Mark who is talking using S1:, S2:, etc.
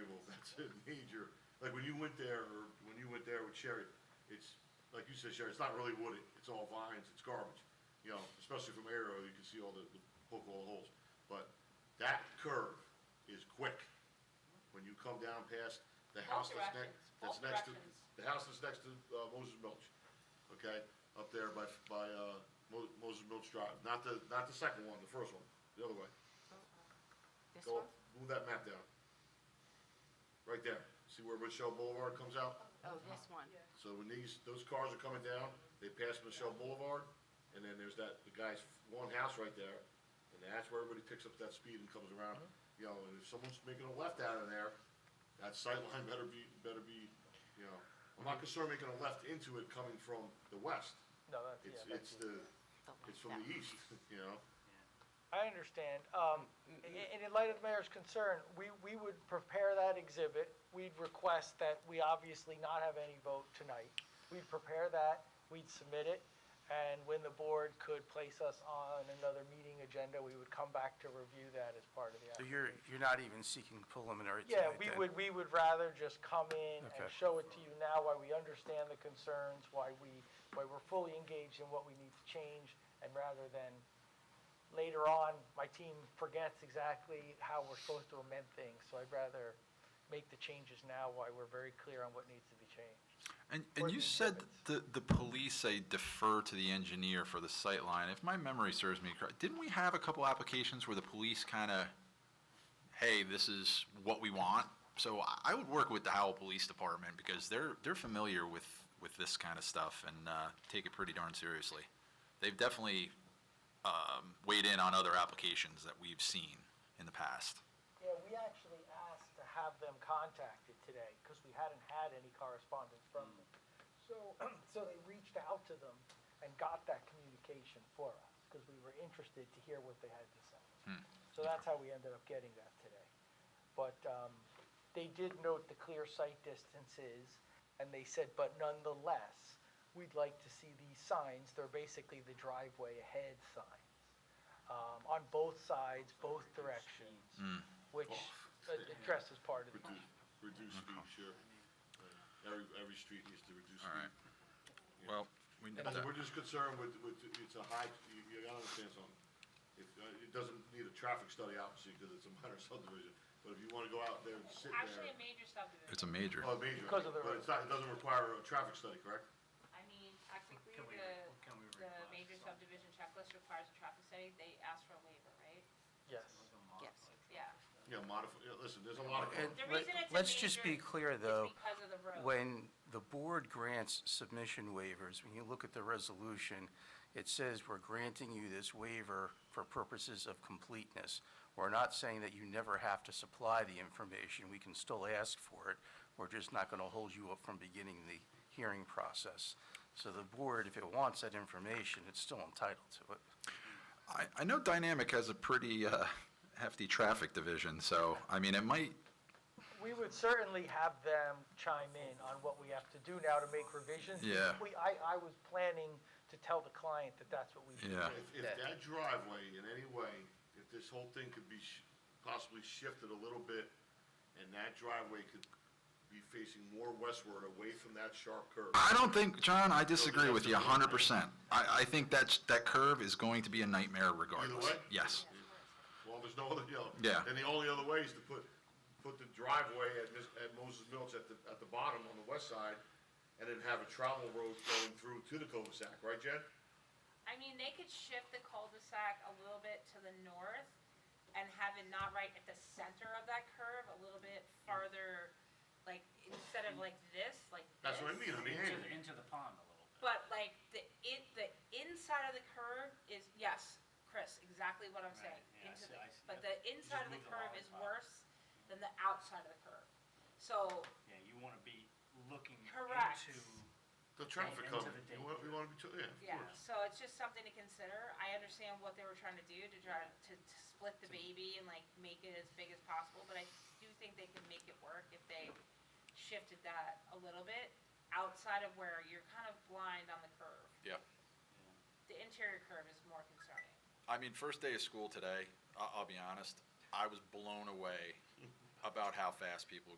S1: it's a major, like when you went there, or when you went there with Sherry, it's, like you said, Sherry, it's not really wooded, it's all vines, it's garbage. You know, especially from aerial, you can see all the, the poke all the holes, but that curve is quick. When you come down past the house that's next,
S2: directions,
S1: that's
S2: both
S1: next to,
S2: directions.
S1: the house that's next to, uh, Moses Milch, okay? Up there by, by, uh, Mo- Moses Milch Drive, not the, not the second one, the first one, the other way.
S3: This
S1: Go,
S3: one?
S1: up, move that map down. Right there. See where Michelle Boulevard comes out?
S3: Oh, this one.
S1: So when these, those cars are coming down, they pass Michelle Boulevard, and then there's that, the guy's one house right there, and that's where everybody picks up that speed and comes around. You know, and if someone's making a left out of there, that sight line better be, better be, you know, I'm not concerned making a left into it coming from the west.
S4: No, that's, yeah,
S1: It's, it's
S4: that's-
S1: the,
S3: The one-
S1: it's from
S3: that
S1: the E east, you know?
S4: I understand. Um,
S1: Mm-hmm.
S4: a- And in light of the mayor's concern, we, we would prepare that exhibit. We'd request that we obviously not have any vote tonight. We'd prepare that, we'd submit it, and when the board could place us on another meeting agenda, we would come back to review that as part of the application.
S5: So you're, you're not even seeking preliminary
S4: Yeah,
S5: tonight
S4: we
S5: then?
S4: would, we would rather just come in
S5: Okay.
S4: and show it to you now, why we understand the concerns, why we, why we're fully engaged in what we need to change, and rather than later on, my team forgets exactly how we're supposed to amend things, so I'd rather make the changes now while we're very clear on what needs to be changed.
S6: And,
S4: Or
S6: and you
S4: the
S6: said
S4: exhibits.
S6: that the, the police say defer to the engineer for the sight line. If my memory serves me correct, didn't we have a couple applications where the police kind of, hey, this is what we want? So I, I would work with the Howell Police Department because they're, they're familiar with, with this kind of stuff and, uh, take it pretty darn seriously. They've definitely, um, weighed in on other applications that we've seen in the past.
S4: Yeah, we actually asked to have them contacted today, because we hadn't had any correspondence from them. So, so they reached out to them and got that communication for us, because we were interested to hear what they had to say. So that's how we ended up getting that today. But um, they did note the clear sight distances, and they said, but nonetheless, we'd like to see these signs, they're basically the driveway ahead signs, um, on both sides, both directions, which uh, addresses part of the
S1: Reduce, reduce speed, sure. Every, every street needs to reduce
S6: All
S1: speed.
S6: right. uh, Well, we,
S1: And We're just concerned with, with, it's a high, you, you gotta understand something. If, uh, it doesn't need a traffic study obviously, because it's a minor subdivision, but if you wanna go out there and sit
S2: Actually, a
S1: there.
S2: major subdivision.
S6: it's a major.
S1: Oh, major,
S4: Because of the
S1: but it's not, it doesn't require a traffic study, correct?
S2: I mean, technically,
S7: Can we-
S2: the,
S7: can we
S2: the
S7: request
S2: major
S7: some-
S2: subdivision checklist requires a traffic study. They asked for a waiver, right?
S4: Yes.
S3: Yes.
S2: Yeah.
S1: Yeah, modify, yeah, listen, there's a lot of.
S5: And
S2: The
S5: let-
S2: reason it's a
S5: Let's just be
S2: major
S5: clear,
S2: is
S5: though.
S2: because of the road.
S5: When the board grants submission waivers, when you look at the resolution, it says we're granting you this waiver for purposes of completeness. We're not saying that you never have to supply the information. We can still ask for it. We're just not going to hold you up from beginning the hearing process. So the board, if it wants that information, it's still entitled to it.
S6: I, I know Dynamic has a pretty uh, hefty traffic division, so, I mean, it might,
S4: We would certainly have them chime in on what we have to do now to make revisions.
S6: Yeah.
S4: We, I, I was planning to tell the client that that's what we should
S6: Yeah.
S4: do.
S1: If, if that driveway in any way, if this whole thing could be sh- possibly shifted a little bit, and that driveway could be facing more westward, away from that sharp curve.
S6: I don't think, John, I disagree with you 100%. I, I think that's, that curve is going to be a nightmare regardless.
S1: way?
S6: Yes.
S1: Well, there's no other, you know.
S6: Yeah.
S1: And the only other way is to put, put the driveway at, Mis- at Moses Mills at the, at the bottom on the west side, and then have a travel road going through to the cul-de-sac, right, Jen?
S2: I mean, they could shift the cul-de-sac a little bit to the north and have it not right at the center of that curve, a little bit farther, like, instead of like this, like this.
S1: That's what I mean, I mean,
S7: Into, the-
S1: hey,
S7: into the pond a little bit.
S2: But like, the, in the inside of the curve is, yes, Chris, exactly what I'm
S7: Right,
S2: saying.
S7: yeah, I
S2: Into
S7: see-
S2: the-
S7: I see.
S2: But
S7: Yep.
S2: the inside of the
S7: Just move the
S2: curve
S7: line
S2: is
S7: up.
S2: worse than the outside of the curve. So,
S7: Yeah, you want to be looking
S2: Correct.
S7: into,
S1: the traffic
S7: Into the
S1: coming, you want, you want to be, to- yeah, of
S2: yeah,
S1: course.
S2: so it's just something to consider. I understand what they were trying to do to try to, to split the baby and like make it as big as possible, but I do think they can make it work if they shifted that a little bit outside of where you're kind of blind on the curve.
S6: Yeah.
S2: The interior curve is more concerning.
S6: I mean, first day of school today, I- I'll be honest, I was blown away about how fast people